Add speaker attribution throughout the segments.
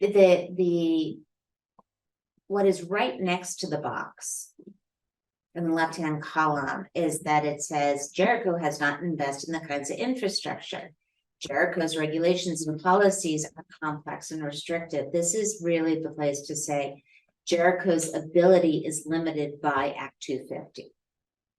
Speaker 1: the, the. What is right next to the box. In the left-hand column is that it says Jericho has not invested in the kinds of infrastructure. Jericho's regulations and policies are complex and restrictive. This is really the place to say. Jericho's ability is limited by Act two fifty.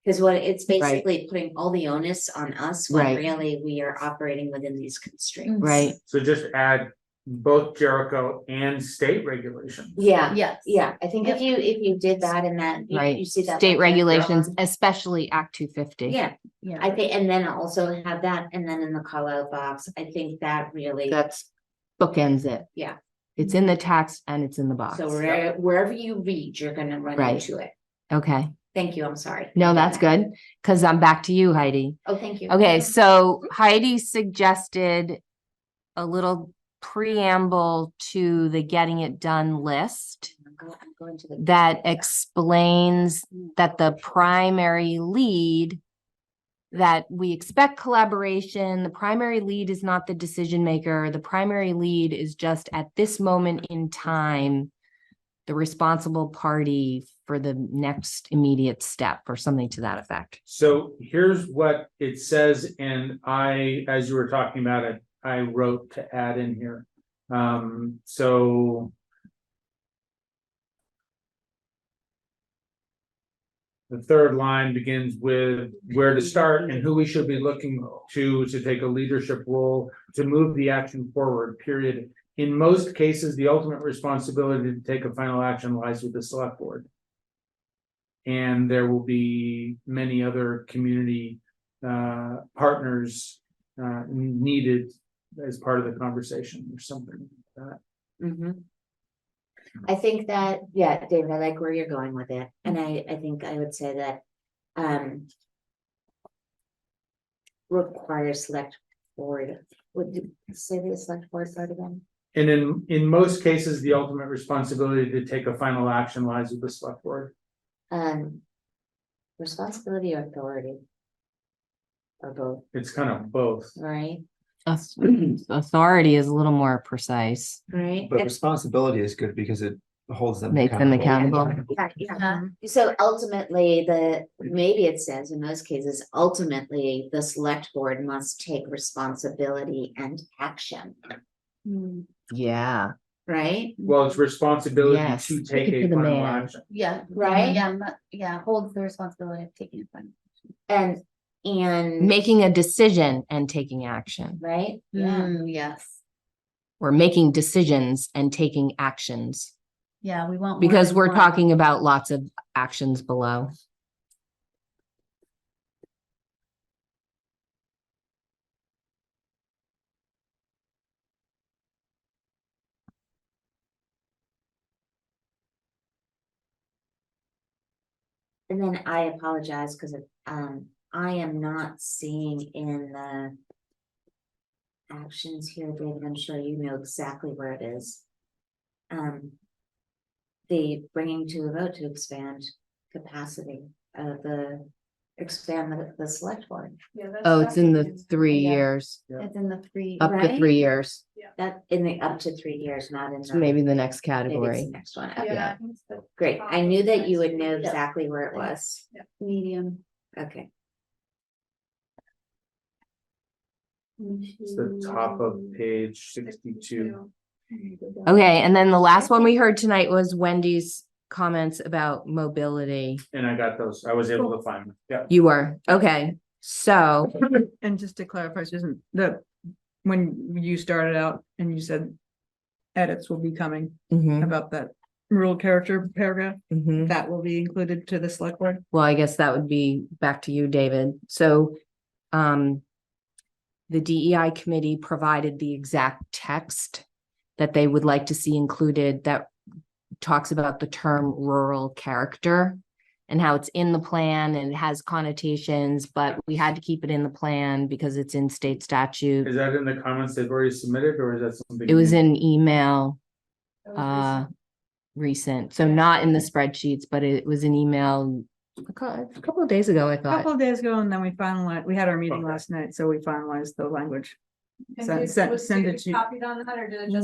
Speaker 1: Cause what it's
Speaker 2: Right.
Speaker 1: basically putting all the onus on us when
Speaker 2: Right.
Speaker 1: really we are operating within these constraints.
Speaker 2: right?
Speaker 3: So just add both Jericho and state regulation.
Speaker 1: Yeah.
Speaker 4: Yes.
Speaker 1: Yeah, I think if you, if you did that and that, you-
Speaker 2: Right.
Speaker 1: you see that.
Speaker 2: State
Speaker 1: like,
Speaker 2: regulations,
Speaker 1: um,
Speaker 2: especially Act two fifty.
Speaker 1: Yeah,
Speaker 4: Yeah.
Speaker 1: I think, and then also have that, and then in the call out box, I think that really,
Speaker 2: That's bookends it.
Speaker 1: Yeah.
Speaker 2: It's in the text and it's in the box.
Speaker 1: so where- wherever you read, you're gonna run
Speaker 2: Right.
Speaker 1: into it.
Speaker 2: Okay,
Speaker 1: Thank you, I'm sorry.
Speaker 2: no, that's good, because I'm back to you, Heidi.
Speaker 1: Oh, thank you.
Speaker 2: Okay, so Heidi suggested a little preamble to the getting it done list
Speaker 1: I'm go- I'm going to the-
Speaker 2: that explains that the primary lead that we expect collaboration, the primary lead is not the decision maker, the primary lead is just at this moment in time the responsible party for the next immediate step or something to that effect.
Speaker 3: So here's what it says, and I, as you were talking about it, I wrote to add in here. Um, so. The third line begins with where to start and who we should be looking to to take a leadership role to move the action forward, period. In most cases, the ultimate responsibility to take a final action lies with the select board. And there will be many other community uh partners uh needed as part of the conversation or something. like that.
Speaker 1: Mhm. I think that, yeah, David, I like where you're going with it, and I, I think I would say that, um. Require select board, would you say the select board part again?
Speaker 3: And in in most cases, the ultimate responsibility to take a final action lies with the select board.
Speaker 1: Um. Responsibility or authority? Or both,
Speaker 3: It's kind of both.
Speaker 1: right?
Speaker 2: Auth- Authority is a little more precise.
Speaker 1: Right?
Speaker 5: But responsibility is good because it holds them.
Speaker 2: Make them accountable.
Speaker 1: Yeah, yeah.
Speaker 4: Yeah.
Speaker 1: So ultimately, the, maybe it says in most cases, ultimately, the select board must take responsibility and action,
Speaker 2: Yeah.
Speaker 1: right?
Speaker 3: Well, it's responsibility
Speaker 2: Yes.
Speaker 3: to take
Speaker 2: Speaking to
Speaker 3: a
Speaker 2: the
Speaker 3: final
Speaker 2: man.
Speaker 3: action.
Speaker 4: Yeah.
Speaker 1: Right?
Speaker 4: Yeah, mu- yeah, holds the responsibility of taking it from.
Speaker 1: And, and.
Speaker 2: Making a decision and taking action,
Speaker 1: Right?
Speaker 4: Mm, yes.
Speaker 2: or making decisions and taking actions.
Speaker 4: Yeah, we want. more
Speaker 2: Because
Speaker 4: than
Speaker 2: we're
Speaker 4: one.
Speaker 2: talking about lots of actions below.
Speaker 1: And then I apologize because um, I am not seeing in the. Actions here, David, I'm sure you know exactly where it is. Um. The bringing to a vote to expand capacity of the, expand the, the select board,
Speaker 2: Oh, it's in the three
Speaker 4: Yeah.
Speaker 2: years,
Speaker 4: It's in the three.
Speaker 2: up to
Speaker 1: Right?
Speaker 2: three years,
Speaker 1: that in the up to three years, not in. the-
Speaker 2: maybe the
Speaker 1: maybe it's
Speaker 2: next
Speaker 1: the
Speaker 2: category.
Speaker 1: Next one, Okay,
Speaker 2: Yeah.
Speaker 6: Yeah. I think it's the
Speaker 1: great, I knew that you would know
Speaker 4: Yeah.
Speaker 1: exactly where it was,
Speaker 4: Medium.
Speaker 1: okay.
Speaker 3: It's the top of page sixty-two.
Speaker 2: Okay, and then the last one we heard tonight was Wendy's comments about mobility.
Speaker 3: And I got those. I was able to find them. Yeah.
Speaker 2: You were, okay, so,
Speaker 6: And just to clarify, Susan, the, when you started out and you said edits will be coming
Speaker 2: mhm,
Speaker 6: about that rural character paragraph,
Speaker 2: mhm.
Speaker 6: that will be included to the select board?
Speaker 2: well, I guess that would be back to you, David. So, um, the DEI committee provided the exact text that they would like to see included that talks about the term rural character and how it's in the plan and it has connotations, but we had to keep it in the plan because it's in state statute.
Speaker 3: Is that in the comments they've already submitted or is that something?
Speaker 2: It was
Speaker 3: new?
Speaker 2: in email, uh, recent, so not in the spreadsheets, but it was an email a cou- a couple of days ago, I
Speaker 6: A
Speaker 2: thought.
Speaker 6: Couple of days ago, and then we finalized, we had our meeting
Speaker 3: Okay.
Speaker 6: last night, so we finalized the language.
Speaker 7: And
Speaker 6: Send-
Speaker 7: did-
Speaker 6: send-
Speaker 7: was
Speaker 6: send
Speaker 7: David
Speaker 6: it to-
Speaker 7: Copied on that or did it just?